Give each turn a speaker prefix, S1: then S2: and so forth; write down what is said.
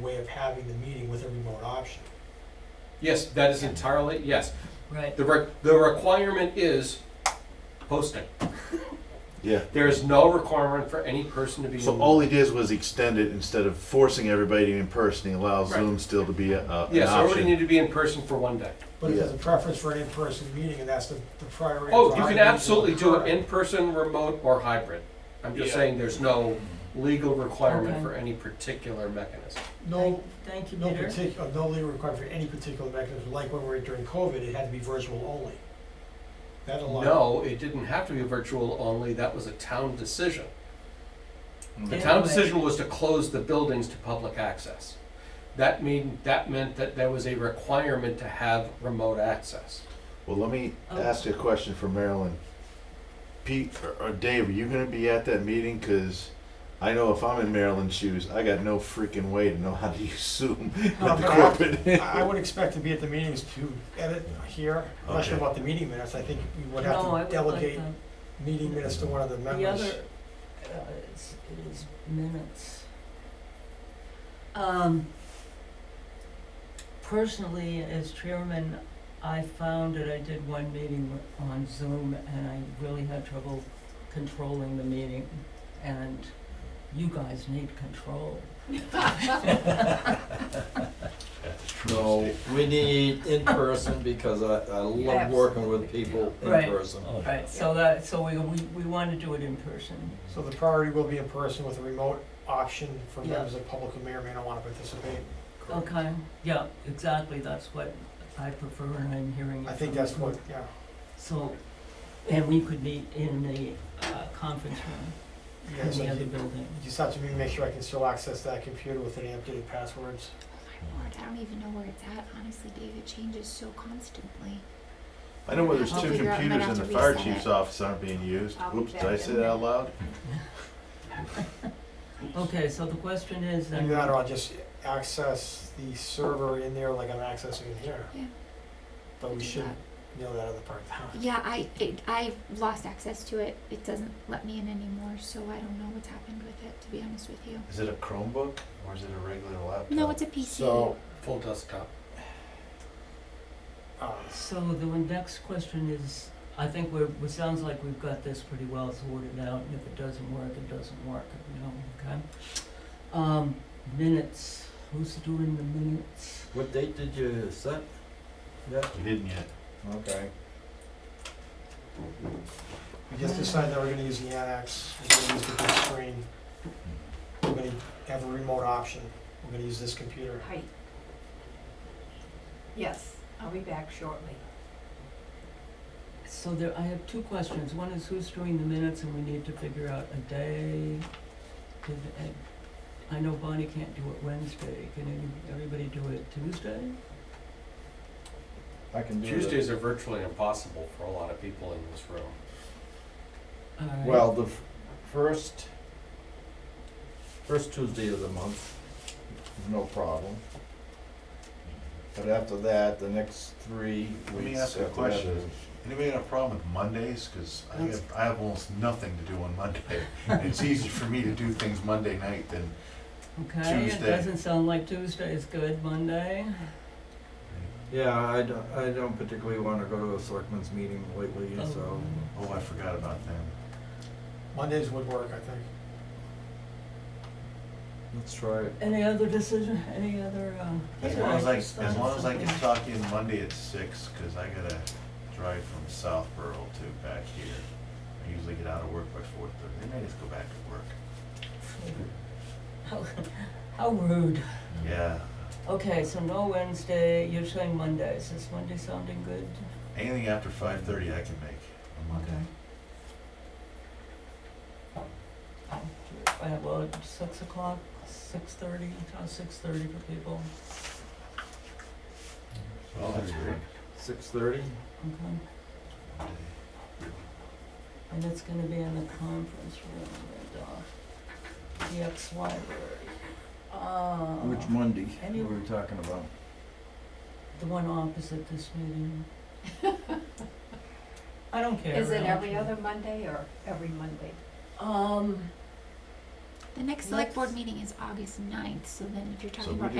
S1: way of having the meeting with a remote option.
S2: Yes, that is entirely, yes.
S3: Right.
S2: The, re- the requirement is posting.
S4: Yeah.
S2: There is no requirement for any person to be.
S4: So
S2: in-
S4: all he did was extend it instead of forcing everybody in person. He allows
S2: Right.
S4: Zoom still to be a, a,
S2: Yes,
S4: an
S2: everybody
S4: option.
S2: need to be in person for one day.
S1: But if
S4: Yeah.
S1: there's a preference for an in-person meeting, and that's the, the priority.
S2: Oh,
S1: for
S2: you
S1: our
S2: can
S1: meeting,
S2: absolutely do it
S1: correct.
S2: in person, remote, or hybrid. I'm just
S5: Yeah.
S2: saying there's no legal requirement
S3: Okay.
S2: for any particular mechanism.
S1: No,
S3: Thank you,
S1: no
S3: Peter.
S1: particular, no legal requirement for any particular mechanism, like when we were during COVID, it had to be virtual only. That allowed.
S2: No, it didn't have to be virtual only, that was a town decision. The
S3: Yeah.
S2: town decision was to close the buildings to public access. That mean, that meant that there was a requirement to have remote access.
S4: Well, let me
S3: Oh.
S4: ask you a question for Marilyn. Pete or- or Dave, are you going to be at that meeting? Because I know if I'm in Marilyn's shoes, I got no freaking way to know how to use Zoom with
S1: No,
S4: the
S1: but I-
S4: corporate.
S1: I I would expect to be at the meetings to edit here, I'm not sure
S4: Okay.
S1: about the meeting minutes, I think we would
S3: No, I
S1: have to
S3: would
S1: delegate
S3: like uh,
S1: meeting minutes to one of the
S3: that. The
S1: members.
S3: other, uh, it's, it is minutes. Um, personally, as chairman, I found that I did one meeting on Zoom and I really had trouble controlling the meeting. And you guys need control.
S6: No, we need in person because I, I love working with people in
S3: Right.
S6: person.
S3: Right, so that, so we, we, we want to do it in person.
S1: So the priority will be in person with a remote option for
S3: Yeah.
S1: members of the public who may or may not want to participate.
S3: Okay, yeah, exactly, that's what I prefer and I'm hearing it
S1: I think
S3: from
S1: that's
S3: you.
S1: what, yeah.
S3: So, and we could meet in the uh, conference room,
S1: Yeah,
S3: in
S1: so
S3: the other
S1: you
S3: building.
S1: you just have to make sure I can still access that computer with any updated passwords.
S7: My lord, I don't even know where it's at, honestly, Dave. It changes so constantly.
S4: I know where there's
S7: I'll
S4: two
S7: figure out-
S4: computers
S7: might
S4: in
S7: have
S4: the
S7: to
S4: fire
S7: reset
S4: chief's
S7: it.
S4: office aren't being used.
S7: I'll be
S4: Oops, did I
S7: back
S4: say
S7: in a
S4: that out
S7: minute.
S4: loud?
S3: Okay, so the question is then.
S1: Either that or I'll just access the server in there like I'm accessing it here.
S7: Yeah.
S1: But we
S7: Do
S1: should
S7: that.
S1: nail that other part down.
S7: Yeah, I it, I've lost access to it. It doesn't let me in anymore, so I don't know what's happened with it. To be honest with you,
S4: Is it a Chromebook or is it a regular laptop?
S7: no, it's a PC.
S1: So,
S2: Full desktop.
S1: uh,
S3: So the one next question is, I think we're, it sounds like we've got this pretty well sorted out, and if it doesn't work, it doesn't work, you know, okay? Um, minutes, who's doing the minutes?
S6: What date did you set? Yeah,
S4: We didn't yet.
S6: okay.
S1: we just decided that we're gonna use the annex, we're gonna use the big screen. We're gonna have a remote option. We're gonna use this computer.
S8: Height. Yes, I'll be back shortly.
S3: So there, I have two questions. One is who's doing the minutes and we need to figure out a day. Did, I- I know Bonnie can't do it Wednesday. Can any, everybody do it Tuesday?
S6: I can do it.
S2: Tuesdays are virtually impossible for a lot of people in this room.
S4: Uh,
S3: All right.
S6: Well, the f- first, first Tuesday of the month, no problem. But after that, the next three
S4: Let me
S6: weeks
S4: ask
S6: after
S4: a
S6: that
S4: question.
S6: is-
S4: Anybody got a problem with Mondays? Because I
S3: That's-
S4: have, I have almost nothing to do on Monday. And it's easier for me to do things Monday night than,
S3: Okay, it
S4: Tuesday.
S3: doesn't sound like Tuesday is good. Monday?
S6: Yeah, I don't, I don't particularly wanna go to a selectmen's meeting lately, so.
S3: Oh.
S4: oh, I forgot about them.
S1: Mondays would work, I think.
S6: Let's try it.
S3: Any other decision, any other, um?
S4: As
S3: yeah,
S4: long as I,
S3: just
S4: as
S3: thought
S4: long
S3: of
S4: as I can
S3: something.
S4: talk in Monday at six, because I gotta drive from Southborough to back here. I usually get out of work by four thirty. They may just go back to work.
S3: How, how rude.
S4: Yeah.
S3: Okay, so no Wednesday, you're saying Mondays. Is Monday sounding good?
S4: Anything after five thirty I can make on Monday.
S3: Uh, well, six o'clock, six thirty, uh, six thirty for people,
S4: Well, Oh, that's great.
S6: Six thirty?
S3: okay?
S4: Monday.
S3: And it's gonna be in the conference room, at, uh, the X library. Uh,
S6: Which Monday
S3: Any-
S6: were we talking about?
S3: the one opposite this meeting. I don't care.
S8: Is
S3: I
S8: it
S3: don't
S8: every
S3: care.
S8: other Monday or every Monday?
S3: Um.
S7: the next select board
S3: Let's-
S7: meeting is August 9th, so then if you're talking
S4: So we
S7: about